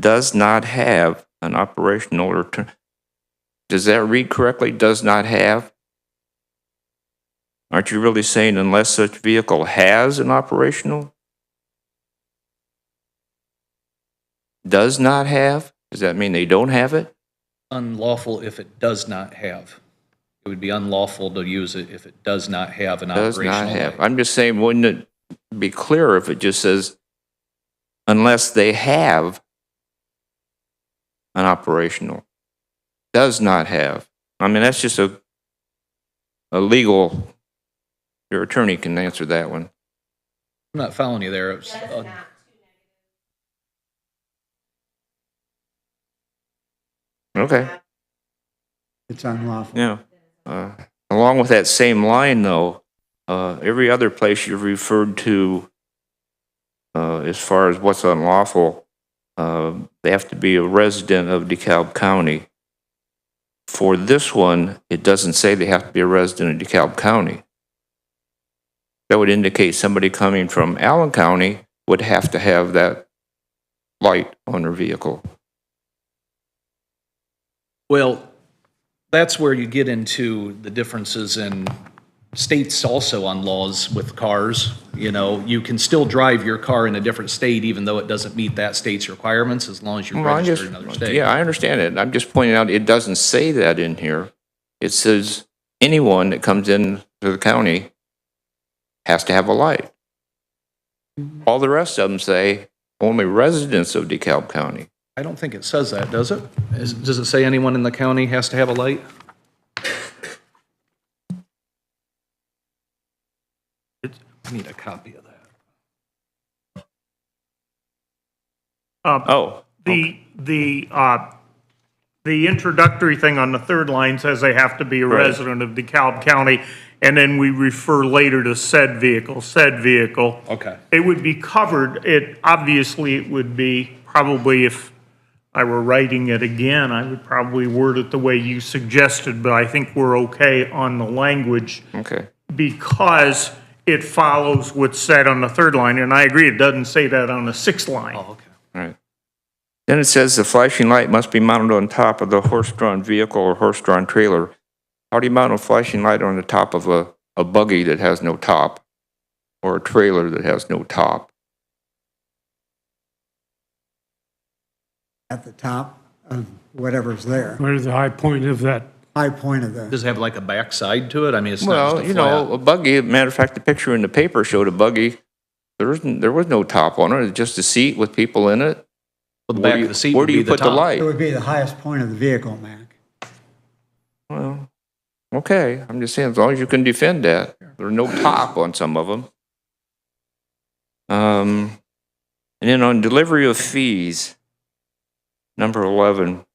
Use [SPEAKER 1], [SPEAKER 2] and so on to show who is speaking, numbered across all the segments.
[SPEAKER 1] does not have an operational return. Does that read correctly? Does not have? Aren't you really saying unless such vehicle has an operational? Does not have? Does that mean they don't have it?
[SPEAKER 2] unlawful if it does not have. It would be unlawful to use it if it does not have an
[SPEAKER 1] Does
[SPEAKER 2] operational.
[SPEAKER 1] not have.
[SPEAKER 2] light.
[SPEAKER 1] I'm just saying, wouldn't it be clearer if it just says unless they have an operational? Does not have. I mean, that's just a, a legal, your attorney can answer that one.
[SPEAKER 2] I'm not following you there. It's, uh,
[SPEAKER 1] Okay,
[SPEAKER 3] It's unlawful.
[SPEAKER 1] yeah. Uh, Along with that same line, though, uh, every other place you've referred to uh, as far as what's unlawful, uh, they have to be a resident of DeKalb County. For this one, it doesn't say they have to be a resident of DeKalb County. That would indicate somebody coming from Allen County would have to have that light on their vehicle.
[SPEAKER 2] Well, that's where you get into the differences in states also on laws with cars. You know, you can still drive your car in a different state even though it doesn't meet that state's requirements as long as you're
[SPEAKER 1] Well, I
[SPEAKER 2] registered
[SPEAKER 1] just,
[SPEAKER 2] in another state.
[SPEAKER 1] yeah, I understand it. I'm just pointing out, it doesn't say that in here. It says anyone that comes into the county has to have a light.
[SPEAKER 2] Mm-hmm.
[SPEAKER 1] All the rest of them say only residents of DeKalb County.
[SPEAKER 2] I don't think it says that, does it? Is- Does it say anyone in the county has to have a light? It's- I need a copy of that.
[SPEAKER 1] Oh,
[SPEAKER 4] The, the, uh, the introductory thing on the third line says they have to be a
[SPEAKER 1] Right.
[SPEAKER 4] resident of DeKalb County, and then we refer later to said vehicle, said vehicle.
[SPEAKER 2] Okay.
[SPEAKER 4] It would be covered, it, obviously, it would be, probably if I were writing it again, I would probably word it the way you suggested, but I think we're okay on the language
[SPEAKER 1] okay.
[SPEAKER 4] because it follows what's said on the third line, and I agree, it doesn't say that on the sixth line.
[SPEAKER 2] Oh, okay.
[SPEAKER 1] Right. Then it says the flashing light must be mounted on top of the horse-drawn vehicle or horse-drawn trailer. How do you mount a flashing light on the top of a, a buggy that has no top? Or a trailer that has no top?
[SPEAKER 3] At the top of whatever's there,
[SPEAKER 5] Where's the high point of that?
[SPEAKER 3] high point of the,
[SPEAKER 2] Does it have like a backside to it? I mean, it's not
[SPEAKER 1] Well,
[SPEAKER 2] just
[SPEAKER 1] you
[SPEAKER 2] a flat.
[SPEAKER 1] know, a buggy, matter of fact, the picture in the paper showed a buggy. There was, there was no top on it, it was just a seat with people in it.
[SPEAKER 2] The
[SPEAKER 1] Where do
[SPEAKER 2] back
[SPEAKER 1] you-
[SPEAKER 2] of the seat
[SPEAKER 1] Where
[SPEAKER 2] would
[SPEAKER 1] do
[SPEAKER 2] be
[SPEAKER 1] you
[SPEAKER 2] the
[SPEAKER 1] put the
[SPEAKER 2] top.
[SPEAKER 3] it
[SPEAKER 1] light?
[SPEAKER 3] would be the highest point of the vehicle, Mac.
[SPEAKER 1] Well, okay, I'm just saying, as long as you can defend that, there's no top on some of them. Um, and then on delivery of fees, number eleven,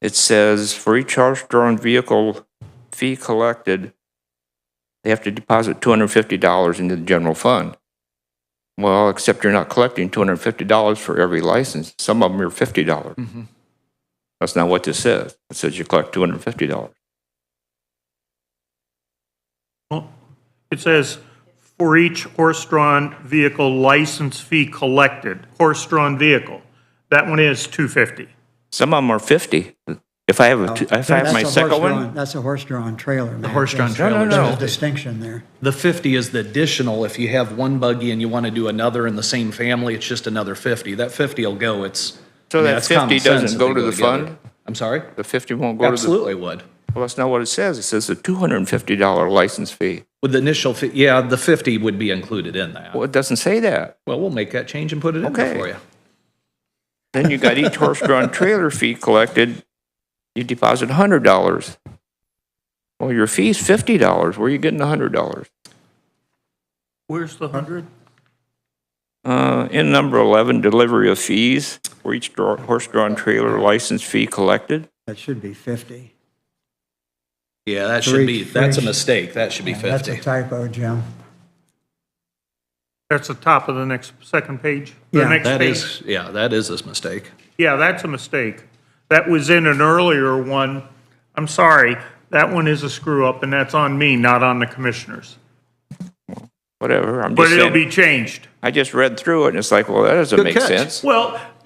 [SPEAKER 1] it says for each horse-drawn vehicle fee collected, they have to deposit two hundred and fifty dollars into the general fund. Well, except you're not collecting two hundred and fifty dollars for every license. Some of them are fifty dollars.
[SPEAKER 2] Mhm.
[SPEAKER 1] That's not what this says. It says you collect two hundred and fifty dollars.
[SPEAKER 4] Well, It says, for each horse-drawn vehicle license fee collected, horse-drawn vehicle. That one is 250.
[SPEAKER 1] Some of them are fifty. If I have, a two- if I have
[SPEAKER 3] Oh, That's
[SPEAKER 1] my
[SPEAKER 3] a
[SPEAKER 1] second one,
[SPEAKER 3] horse-drawn- That's a horse-drawn trailer, Mac.
[SPEAKER 2] horse-drawn
[SPEAKER 3] There's-
[SPEAKER 2] trailer.
[SPEAKER 1] No, no,
[SPEAKER 3] There's
[SPEAKER 1] no.
[SPEAKER 3] a distinction there.
[SPEAKER 2] The 50 is the additional. If you have one buggy and you want to do another in the same family, it's just another 50. That 50 will go. It's.
[SPEAKER 1] So
[SPEAKER 2] I mean,
[SPEAKER 1] that
[SPEAKER 2] that's common
[SPEAKER 1] 50
[SPEAKER 2] sense
[SPEAKER 1] doesn't
[SPEAKER 2] if
[SPEAKER 1] go
[SPEAKER 2] they
[SPEAKER 1] to the
[SPEAKER 2] together.
[SPEAKER 1] fund?
[SPEAKER 2] I'm sorry?
[SPEAKER 1] the fifty won't go to the.
[SPEAKER 2] Absolutely would.
[SPEAKER 1] Well, that's not what it says. It says a two hundred and fifty dollar license fee.
[SPEAKER 2] With the initial, fi- yeah, the 50 would be included in that.
[SPEAKER 1] Well, it doesn't say that.
[SPEAKER 2] Well, we'll make that change and put it in there
[SPEAKER 1] Okay.
[SPEAKER 2] for you.
[SPEAKER 1] Then you got each horse-drawn trailer fee collected, you deposit hundred dollars. Well, your fee's fifty dollars. Where are you getting a hundred dollars?
[SPEAKER 4] Where's the 100?
[SPEAKER 1] Uh, in number eleven, delivery of fees for each dra- horse-drawn trailer license fee collected.
[SPEAKER 3] That should be 50.
[SPEAKER 2] Yeah, that
[SPEAKER 3] Three-
[SPEAKER 2] should be, that's a
[SPEAKER 3] three-
[SPEAKER 2] mistake. That should be
[SPEAKER 3] That's a
[SPEAKER 2] 50.
[SPEAKER 3] typo, Jim.
[SPEAKER 4] That's the top of the next, second page? The
[SPEAKER 3] Yeah.
[SPEAKER 4] next
[SPEAKER 2] That
[SPEAKER 4] page.
[SPEAKER 2] is, yeah, that is this mistake.
[SPEAKER 4] Yeah, that's a mistake. That was in an earlier one. I'm sorry, that one is a screw-up, and that's on me, not on the commissioners.
[SPEAKER 1] Whatever, I'm just
[SPEAKER 4] But it'll be
[SPEAKER 1] saying.
[SPEAKER 4] changed.
[SPEAKER 1] I just read through it and it's like, well, that doesn't
[SPEAKER 2] Good
[SPEAKER 1] make
[SPEAKER 2] catch.
[SPEAKER 1] sense.
[SPEAKER 4] Well,